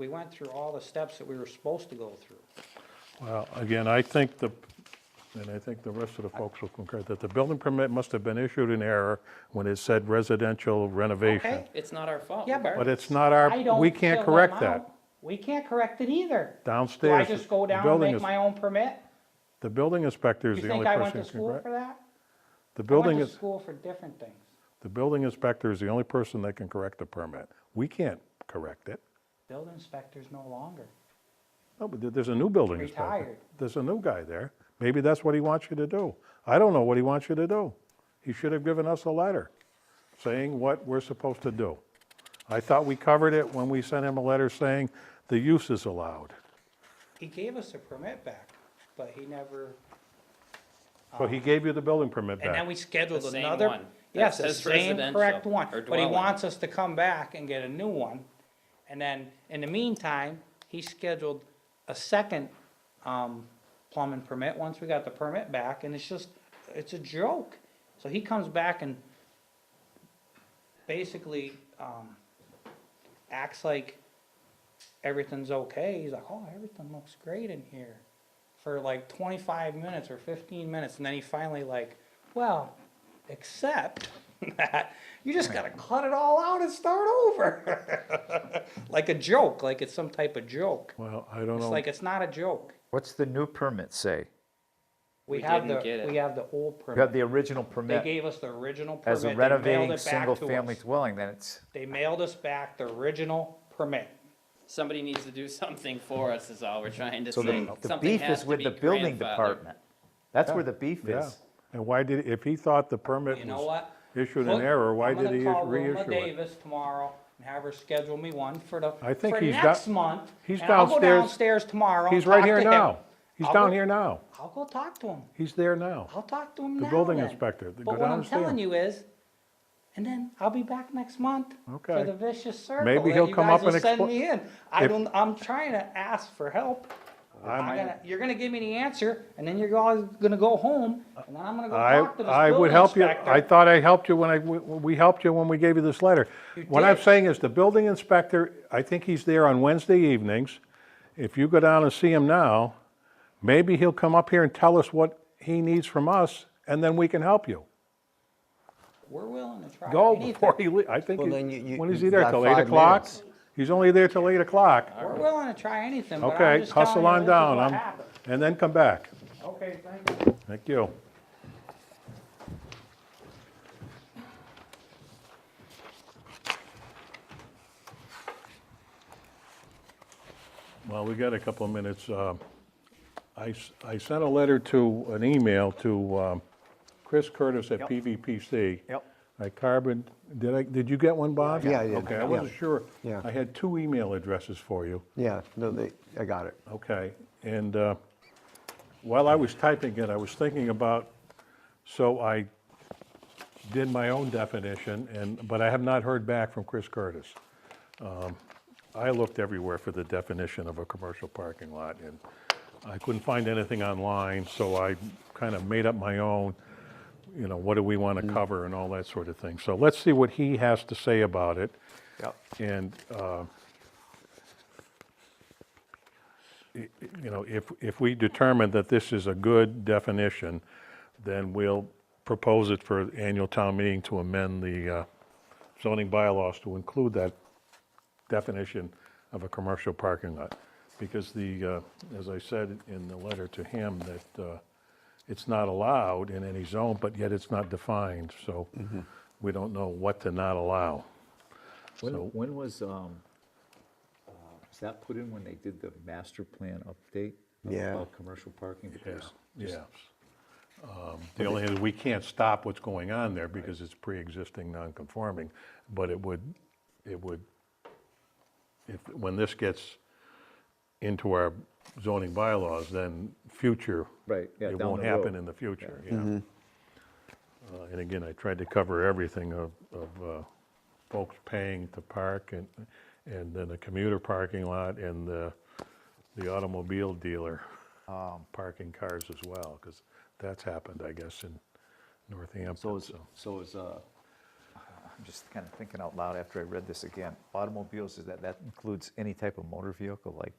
we went through all the steps that we were supposed to go through. Well, Uh, again, I think the, and I think the rest of the folks will concur, that the building permit must have been issued in error when it said residential renovation. Okay? It's not our fault. Yeah, We're- But it's not our, I don't we fill can't them correct out. that. We can't correct it either. Do I Downstairs, just go the down and building make is, my own permit? the building inspector is You the only think I went person to who can school correct. for that? The I building went to is, school for different things. the building inspector is the only person that can correct the permit. We can't correct it. Building inspector's no longer. No, Oh, but there- there's a new building inspector. Retired. There's a new guy there. Maybe that's what he wants you to do. I don't know what he wants you to do. He should have given us a letter saying what we're supposed to do. I thought we covered it when we sent him a letter saying the use is allowed. He gave us the permit back, but he never, So he gave you the building permit and then back. we scheduled The same another. one that Yes, the says same correct residential one, or but he dwelling. wants us to come back and get a new one. And then, in the meantime, he scheduled a second, um, plumbing permit, once we got the permit back, and it's just, it's a joke. So he comes back and basically, um, acts like everything's okay. He's like, oh, everything looks great in here for like 25 minutes or 15 minutes. And then he finally like, well, except that you just got to cut it all out and start over. like a joke, like it's some type of joke. Well, I don't It's know. like, it's not a joke. What's the new permit say? We We have didn't the, get it. we have the old You have permit. the original They permit gave us the original permit. as They a mailed renovating it back to single-family us. dwelling, then it's, They mailed us back the original permit. Somebody needs to do something for us is all we're trying to so say. the, the Something beef has is to with be the building grandfathered. department. That's where the beef Yeah. is. And why did, if he thought the permit You know was what? issued in Look, error, why I'm gonna did he call Wilma reissue it? Davis tomorrow and have her schedule me one for the, I think for he's next down- month. he's and I'll go downstairs. downstairs tomorrow. and He's right talk here to him. now. He's I'll down go- here now. I'll go talk to him. He's there now. I'll talk to him The now building then. inspector, the- But go what I'm downstairs. telling you is, and then I'll be back next month Okay. for the vicious circle. Maybe that he'll you come guys up and will send expl- me in. I If- don't. I'm trying to ask for help. I'm gonna, you're gonna give me the answer, and then you're all gonna go home, and then I'm gonna go I, talk to this I would building help you, inspector. I thought I helped you when I, we- we helped you when we gave you this letter. You What I'm did. saying is, the building inspector, I think he's there on Wednesday evenings. If you go down and see him now, maybe he'll come up here and tell us what he needs from us, and then we can help you. We're willing to try Go anything. before he, lea- I think, Well, he- then you- you- when is he you've there, got till eight five o'clock? minutes. He's only there till eight o'clock. We're willing to try anything, but I'm Okay, just telling hustle you, on this is down, what um, happened. and then come back. Okay, thank you. Thank you. Well, we got a couple of minutes. Uh, I s- I sent a letter to, an email to um, Chris Curtis at Yep. PVPC. Yep. I carbon, did I, did you get one, Bob? Yeah, I did. Okay, I Yeah. wasn't sure. Yeah. I had two email addresses for you. Yeah, no, they, I got it. Okay, and uh, while I was typing it, I was thinking about, so I did my own definition, and, but I have not heard back from Chris Curtis. Um, I looked everywhere for the definition of a commercial parking lot, and I couldn't find anything online, so I kind of made up my own, you know, what do we want to cover and all that sort of thing. So let's see what he has to say about it. Yep. And, uh, i- i- you know, if, if we determine that this is a good definition, then we'll propose it for annual town meeting to amend the uh, zoning bylaws to include that definition of a commercial parking lot. Because the, uh, as I said in the letter to him, that uh, it's not allowed in any zone, but yet it's not defined, so we don't know what to not allow. When, So- when was, um, uh, was that put in when they did the master plan update? of- Yeah. About commercial parking? Because Yes. Um, The only thing is, we can't stop what's going on there because it's pre-existing non-conforming, but it would, it would, if, when this gets into our zoning bylaws, then future. Right, yeah, It down won't the road. happen in the future, yeah. Uh, And again, I tried to cover everything of, of uh, folks paying to park and, and then the commuter parking lot and the, the automobile dealer um, parking cars as well, because that's happened, I guess, in Northampton. So is, so. so is, uh, I'm just kind of thinking out loud after I read this again. Automobiles, is that, that includes any type of motor vehicle, like